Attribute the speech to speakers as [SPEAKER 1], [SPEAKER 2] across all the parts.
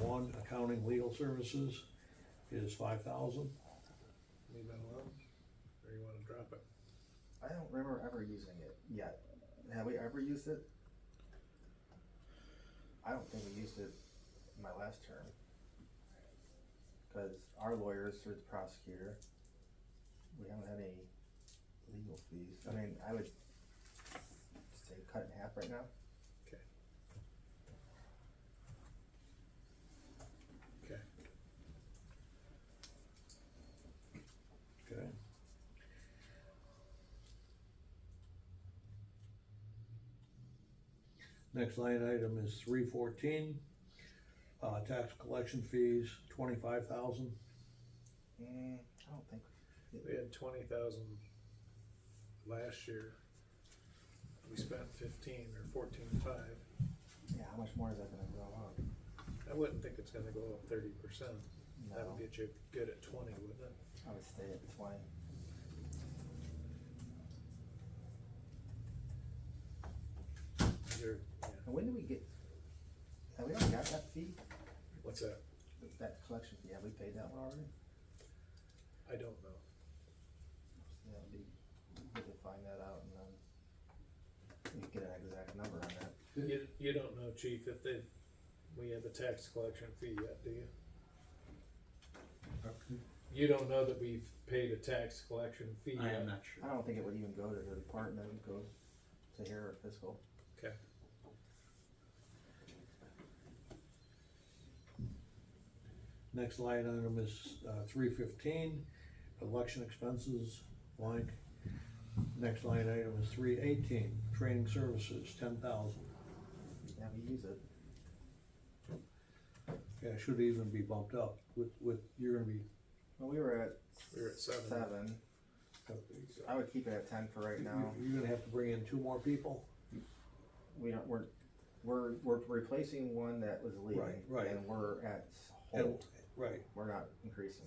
[SPEAKER 1] one, accounting legal services is five thousand.
[SPEAKER 2] leave that alone, or you wanna drop it?
[SPEAKER 3] I don't remember ever using it yet. Have we ever used it? I don't think we used it in my last term. Cause our lawyers through the prosecutor, we haven't had any legal fees. I mean, I would say cut in half right now.
[SPEAKER 2] Okay. Okay,
[SPEAKER 1] Okay. Next line item is three fourteen, uh, tax collection fees, twenty-five thousand.
[SPEAKER 3] Mm, I don't think.
[SPEAKER 2] we had twenty thousand last year. We spent fifteen or fourteen five,
[SPEAKER 3] Yeah, how much more is that gonna go up?
[SPEAKER 2] I wouldn't think it's gonna go up thirty percent, that
[SPEAKER 3] No.
[SPEAKER 2] would get you good at twenty, wouldn't it?
[SPEAKER 3] I would stay at twenty.
[SPEAKER 2] You're- yeah.
[SPEAKER 3] And when do we get, have we already got that fee?
[SPEAKER 2] What's that?
[SPEAKER 3] That collection fee, have we paid that one already?
[SPEAKER 2] I don't know.
[SPEAKER 3] Yeah, it'd be good to find that out and then we can get an exact number on that.
[SPEAKER 2] You, you don't know, chief, if they, we have the tax collection fee yet, do you? You don't know that we've paid a tax collection fee yet?
[SPEAKER 4] I am not sure.
[SPEAKER 3] I don't think it would even go to the department, it would go to here or fiscal.
[SPEAKER 2] Okay.
[SPEAKER 1] Next line item is, uh, three fifteen, election expenses, blank. Next line item is three eighteen, training services, ten thousand.
[SPEAKER 3] Yeah, we use it.
[SPEAKER 1] Yeah, it should even be bumped up with, with, you're gonna be,
[SPEAKER 3] Well, we were at.
[SPEAKER 2] We were at seven.
[SPEAKER 3] Seven. I would keep it at ten for right now.
[SPEAKER 1] uh, you're gonna have to bring in two more people.
[SPEAKER 3] We don't, we're, we're, we're replacing one that was leaving.
[SPEAKER 1] Right, right.
[SPEAKER 3] And we're at
[SPEAKER 1] And,
[SPEAKER 3] hold,
[SPEAKER 1] right,
[SPEAKER 3] we're not increasing.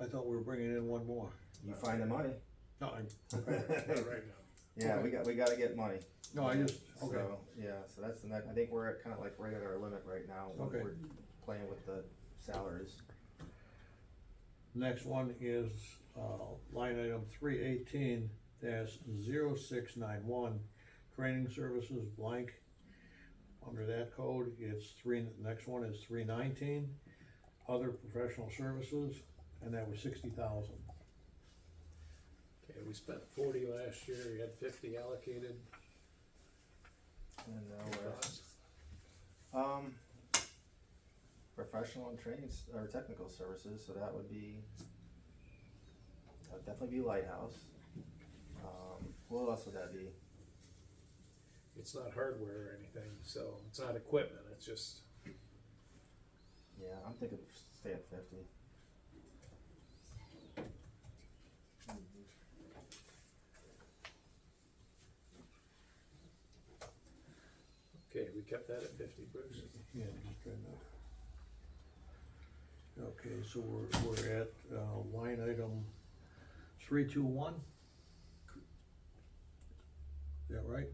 [SPEAKER 1] I thought we were bringing in one more.
[SPEAKER 3] You find the money.
[SPEAKER 1] No, I,
[SPEAKER 2] Not right now.
[SPEAKER 3] Yeah, we got, we gotta get money.
[SPEAKER 1] no, I just, okay,
[SPEAKER 3] So, yeah, so that's the next, I think we're at kind of like right at our limit right now. when
[SPEAKER 1] Okay.
[SPEAKER 3] We're Playing with the salaries.
[SPEAKER 1] next one is, uh, line item three eighteen dash zero six nine one, training services blank. Under that code, it's three, the next one is three nineteen, other professional services, and that was sixty thousand.
[SPEAKER 2] Okay, we spent forty last year, we had fifty allocated.
[SPEAKER 3] And
[SPEAKER 4] Oh,
[SPEAKER 3] now we're at, um, professional and training, s- or technical services, so that would be, that would definitely be Lighthouse. Um, what else would that be?
[SPEAKER 2] It's not hardware or anything, so it's not equipment, it's just,
[SPEAKER 3] Yeah, I'm thinking stay at fifty.
[SPEAKER 2] okay, we kept that at fifty, Bruce.
[SPEAKER 1] Yeah, just trying to. Okay, so we're, we're at, uh, line item three two one? Is that right?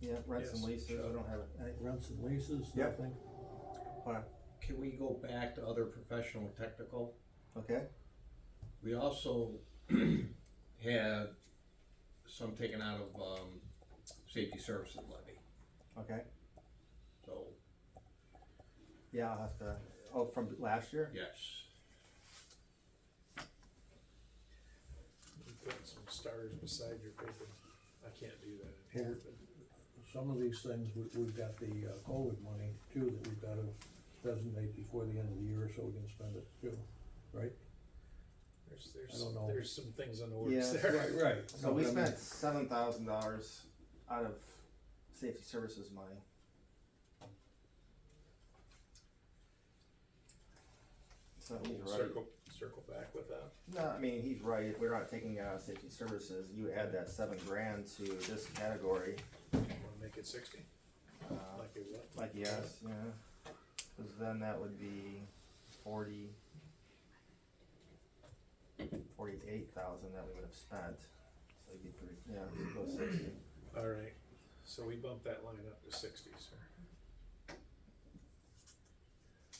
[SPEAKER 3] Yeah, rents and
[SPEAKER 2] Yes,
[SPEAKER 3] leases, we
[SPEAKER 2] sure.
[SPEAKER 3] don't have any,
[SPEAKER 1] Rents and leases,
[SPEAKER 3] Yeah.
[SPEAKER 1] nothing?
[SPEAKER 3] hold on,
[SPEAKER 4] Can we go back to other professional and technical?
[SPEAKER 3] okay,
[SPEAKER 4] We also had some taken out of, um, safety services levy,
[SPEAKER 3] okay,
[SPEAKER 4] so,
[SPEAKER 3] yeah, I'll have to, oh, from last year?
[SPEAKER 4] yes.
[SPEAKER 2] You put some stars beside your paper, I can't do that
[SPEAKER 1] Yeah.
[SPEAKER 2] anymore, but.
[SPEAKER 1] Some of these things, we, we've got the uh, COVID money too, that we've gotta designate before the end of the year, so we can spend it too, right?
[SPEAKER 2] There's,
[SPEAKER 1] I
[SPEAKER 2] there's,
[SPEAKER 1] don't know.
[SPEAKER 2] there's some things in the
[SPEAKER 3] Yeah.
[SPEAKER 2] works there.
[SPEAKER 1] right.
[SPEAKER 3] So we spent seven thousand dollars out of safety services money. So he's
[SPEAKER 2] We'll
[SPEAKER 3] right.
[SPEAKER 2] Circle, circle back with that.
[SPEAKER 3] No, I mean, he's right. We're not taking out of safety services. You add that seven grand to this category.
[SPEAKER 2] Wanna make it sixty,
[SPEAKER 3] Uh,
[SPEAKER 2] like it was?
[SPEAKER 3] like yes, yeah. Cause then that would be forty. Forty-eight thousand that we would have spent. So it'd be pretty, yeah, go sixty.
[SPEAKER 2] Alright, so we bumped that line up to sixty, sir.